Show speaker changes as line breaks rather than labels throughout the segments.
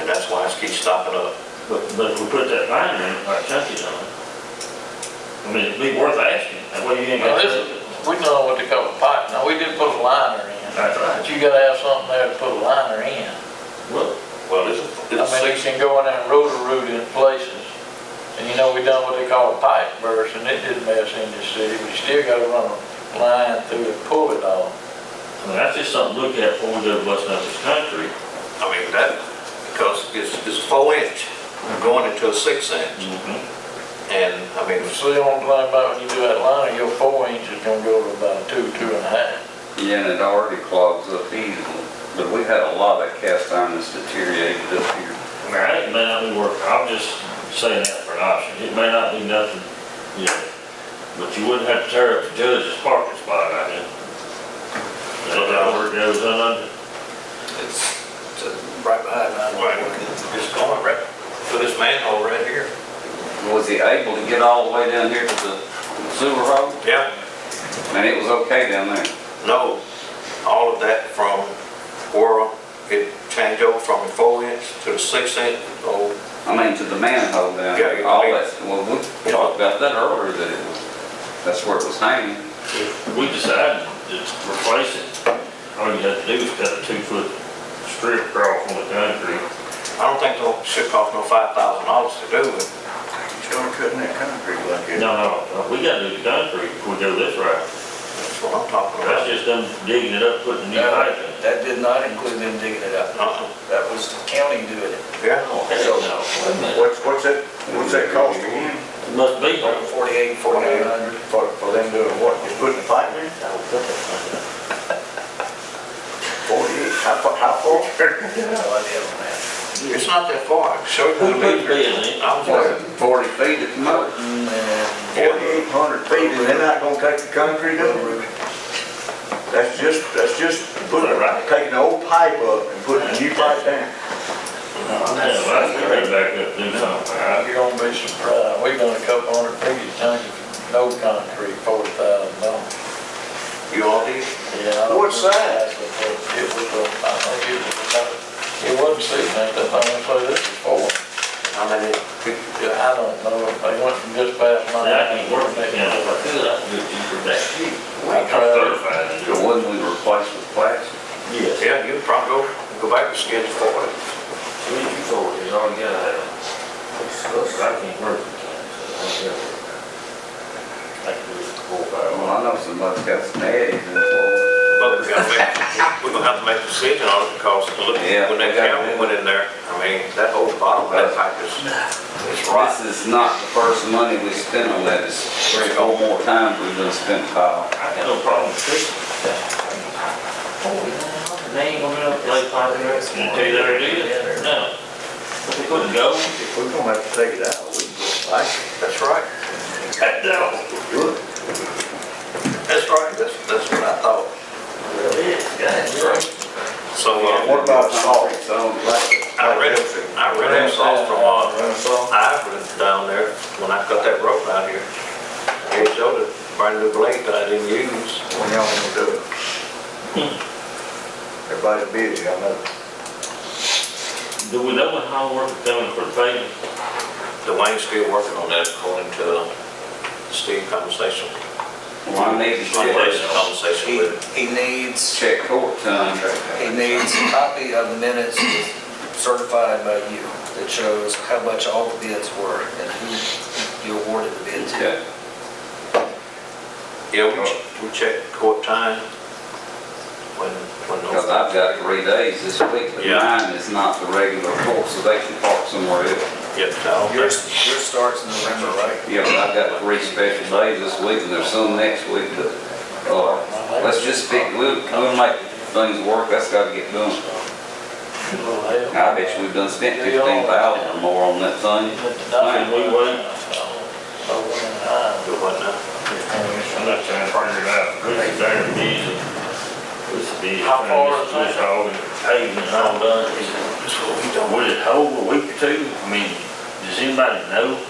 and that's why it keeps stopping up.
But, but if we put that line in, our chunkies on it, I mean, it'd be worth asking, that way you ain't
Now,
got.
this is, we know what they call a pipe, now, we did put a liner in,
That's
but
right.
you gotta have something there to put a liner in.
Well,
Well, it's,
I
it's
mean,
six,
you can go in and rotor root in places, and you know, we done what they call a pipe burst, and it did mess in this city, but you still gotta run a line through and pull it all.
I mean, that's just something to look at before we go busting up this country.
I mean, that, because it's, it's four inch going into a six inch. And, I mean, it's-
So you don't complain about when you do that liner, your four inch is gonna go to about two, two and a half.
Yeah, and it already clogs up easily, but we had a lot of cast iron that's deteriorated up here.
I mean, I- it may not be worth, I'm just saying that for an option, it may not be nothing, you know, but you wouldn't have to tear up the judge's parking spot right now. That's how work goes on under.
it's it's right behind, I It's going right, for this manhole right here.
Was he able to get all the way down here to the sewer hole?
Yeah.
And it was okay down there.
No, all of that from where it changed over from the four inch to the six inch, oh,
I mean, to the manhole
Yeah,
down there,
you-
all that, well, we talked about that earlier, that it was, that's where it was hanging.
If we decide to replace it, all you have to do is cut a two-foot strip across on the concrete.
I don't think it should cost no five thousand dollars to do it.
No, no, we gotta do the concrete before we go this route.
That's what I'm talking
That's
about.
just them digging it up, putting new pipe in.
That did not include them digging it up.
Uh-uh.
That was the county doing it.
Yeah.
Oh, hell no. Wait a minute.
What's, what's that, what's that cost again?
It Must be, there.
Forty-eight, forty-nine hundred.
For, for them doing what, just putting the pipe in? Forty-eight, how far, how far?
No idea on that.
It's not that far. Show you
Who
the
put the
meter.
bid in?
I was like,
Forty feet at the most.
And
Forty-eight hundred feet, and they're not gonna take the concrete up? That's just, that's just putting, taking the old pipe up and putting a new pipe down.
Yeah, well, I gotta back up, do something. I-
You're gonna be surprised, we Uh, done a couple hundred previous times, no concrete, forty thousand dollars.
you all these?
Yeah. I don't
What size?
remember that, but It was, a- I think it was, about- it wasn't six inch, I think, so this is four.
How many?
I don't know, they went from just past
I
my.
can work that down if I could, I could do it cheaper back here.
I
I'm
tried,
certified to do
The
it.
one we replaced with plastic.
Yes.
Yeah, you probably go, go back to schedule four.
Three, four, you already gotta have it. I can't work the time, so I don't care. I can do it four, five,
Well,
one.
I know somebody's got some eggs in the floor.
But we gotta make, we're gonna have to make a decision on it because look,
Yeah,
when
we
that
gotta
camera
do.
went in there, I mean, that whole bottom of that pipe is, it's rotten.
This is not the first money we spent on that, it's three or four more times we've done spent tile.
I got no problem with fixing that. They ain't gonna be able to play five minutes. Did they ever do it? No. But they couldn't go.
If we're gonna have to take it out, we can just like it.
That's right.
No.
That's right. That's, that's what I thought. So, uh,
What about salt?
So, like,
I read, I read that sauce from, uh,
Run us off?
Ivory down there, when I cut that rope out here. They showed a brand new blade that I didn't use.
When y'all gonna do it? Everybody's busy, I know.
Do we know when hard work is coming for paving?
Dwayne's still working on that according to Steve's conversation.
well, I need to check,
Steve's Conversation with him.
he, he needs,
check court time.
he needs a copy of the minutes certified by you that shows how much all the bids were and who you awarded the bid to.
Okay.
Yeah, we, ch- we check court time when, when
Because
those,
I've got three days this week, but
Yeah.
mine is not the regular court, so they can park somewhere else.
yeah, I don't
Yours,
think-
yours starts in November, right?
Yeah, but I've got three special days this week, and there's some next week, but, uh, let's just pick, we'll, we'll make things work, that's gotta get done. I bet you we've done spent fifteen thousand or more on that thing.
Can we wait?
uh,
do what now.
I'm not trying to figure it out. This is very busy. This is busy.
How far is that?
This all the paving and all done.
That's what we
Would it hold a week or two? I mean, does anybody know?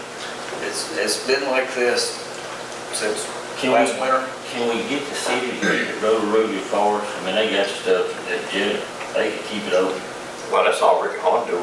It's, it's been like this since
Can we-
last winter.
Can we get the city to get the road road for us? I mean, they got stuff that, ju- they could keep it open.
Well, that's all Ricky Horn do